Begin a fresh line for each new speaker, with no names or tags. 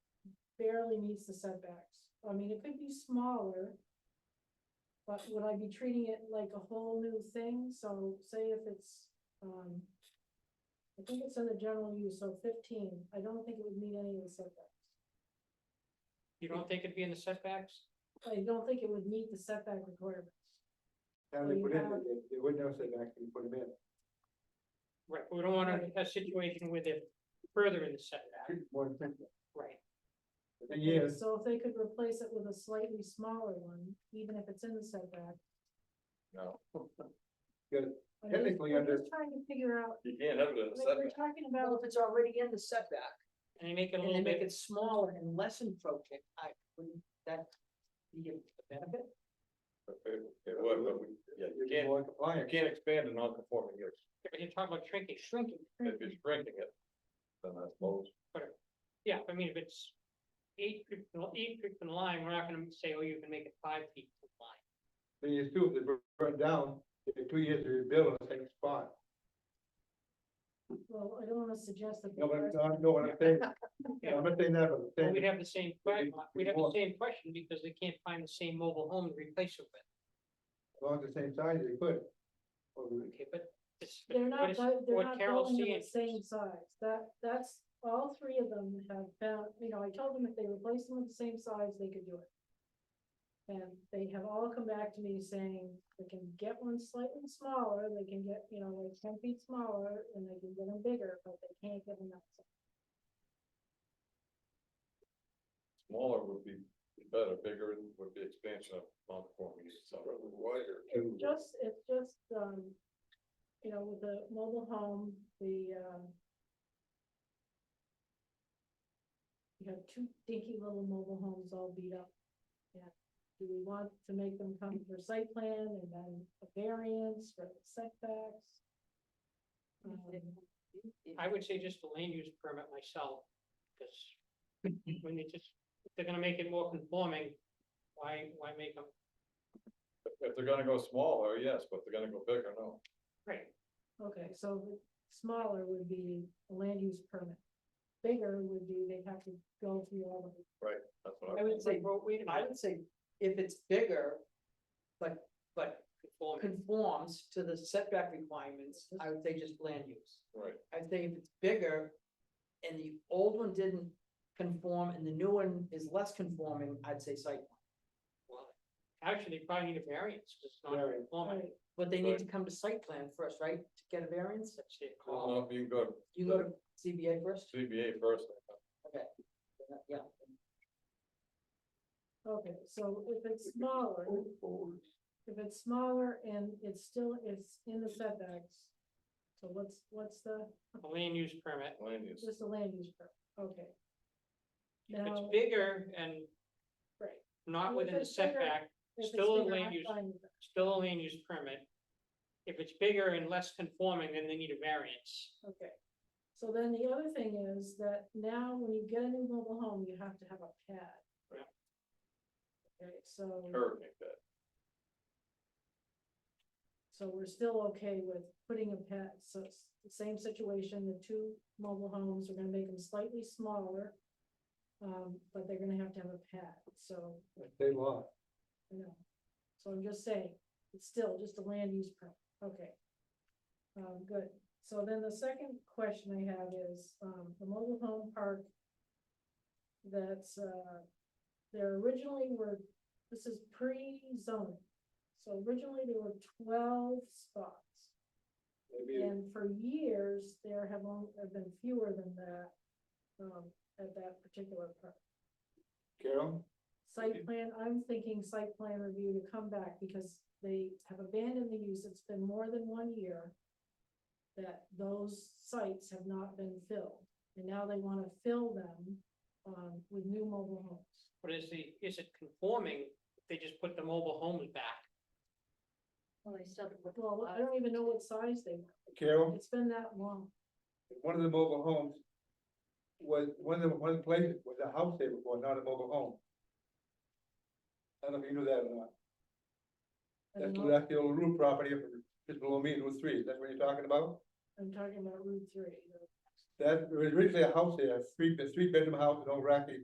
barely meets the setbacks. I mean, it could be smaller. But would I be treating it like a whole new thing? So say if it's, um. I think it's in the general use, so fifteen, I don't think it would meet any of the setbacks.
You don't think it'd be in the setbacks?
I don't think it would meet the setback requirements.
Now they put in, they- they would know setback, you put them in.
Right, we don't want a- a situation where they're further in the setback,
Two, One thing,
right?
the thing is,
So if they could replace it with a slightly smaller one, even if it's in the setback.
No.
Good.
I mean,
Technically,
we're
under-
just Trying to figure out,
You can't have it in
like,
a
we're
setback.
talking
Well,
about,
if it's already in the setback
And they make it a
and they
little
make
bit,
it smaller and less encroaching, I, wouldn't that be a benefit?
It it would, but we, yeah, you
you're
can't,
more
you
compliant.
can't expand a non-conforming use.
but you're talking about shrinking, shrinking,
If you're
Mm-hmm.
shrinking it, then I suppose.
yeah, I mean, if it's eight feet, from- eight feet from the line, we're not gonna say, oh, you can make it five feet from the line.
Thing is too, if they burn- burn down, it took two years to rebuild on the same spot.
well, I don't wanna suggest that.
No,
the
but
rest-
I know what I'm saying.
Yeah.
I'm not saying that, but I'm
Well,
saying.
we'd have the same, que-
Maybe
we'd have the
more.
same question because they can't find the same mobile home to replace it with,
along the same size they could. Or we-
okay, but it's. but
They're not,
it's
bu- they're
what
not
Carol's
building them
seeing
the same size, that, that's, all three of them have found, you know, I told them if they replace them with the same size, they could do it. And they have all come back to me saying, they can get one slightly smaller, they can get, you know, like ten feet smaller, and they can get them bigger, but they can't get them that size.
Smaller would be better, bigger would be expansion of non-conforming use. so Wider.
It's just, it's just, um, you know, with the mobile home, the, um. You have two dinky little mobile homes all beat up. Yeah, do we want to make them come for site plan and then a variance for setbacks? Um,
I would say just a land use permit myself, because when they just, if they're gonna make it more conforming, why, why make them,
If they're gonna go smaller, yes, but if they're gonna go bigger, no.
right,
Okay, so smaller would be a land use permit. Bigger would be they have to go through all of it.
That's what
I
I,
would say,
well, wait a
I
minute,
would say if it's bigger, but, but
conforming,
conforms to the setback requirements, I would say just land use.
right.
I'd say if it's bigger and the old one didn't conform and the new one is less conforming, I'd say site. plan.
well, actually, they probably need a variance, 'cause it's not
Variance.
conforming,
Right.
But they need to come to site plan first, right, to get a variance?
that's it.
I don't know if you can go to
You go to CBA first?
CBA first.
Yeah.
Okay, so if it's smaller. If it's smaller and it's still, it's in the setbacks. So what's, what's the,
A land use permit,
Land use.
just the land use permit, okay.
if
Now-
it's bigger and
Right.
not
If
within the
it's bigger-
setback,
If it's
Still a
bigger,
land
I'm
use-
fine with that.
still a land use permit. If it's bigger and less conforming, then they need a variance,
Okay. So then the other thing is that now when you get a new mobile home, you have to have a pad.
Right.
Okay, so,
Hurricane that.
so we're still okay with putting a pad, so it's the same situation, the two mobile homes, we're gonna make them slightly smaller. Um, but they're gonna have to have a pad, so
That's state law.
I know. So I'm just saying, it's still just a land use permit, okay. Um, good. So then the second question I have is, um, the mobile home park. That's, uh, there originally were, this is pre-zoning. So originally there were twelve spots.
Maybe
And for years, there have only, have been fewer than that, um, at that particular park
Carol,
site
Mhm.
plan, I'm thinking site plan review to come back because they have abandoned the use, it's been more than one year. That those sites have not been filled, and now they wanna fill them, um, with new mobile homes.
but is the, is it conforming? if They just put the mobile homes back.
Well, they still. have to look at
Well, I
lots.
don't even know what size they were,
Carol,
it's been that long,
one of the mobile homes was, one of the, one of the places was a house they were for, not a mobile home. I don't know if you knew that or not.
I
That's,
don't know.
that's the old roof property, up in- just below me, Route Three, that's what you're talking about?
I'm talking about Route three, the
That, there was originally a house there, a three, a three bedroom house, an old racky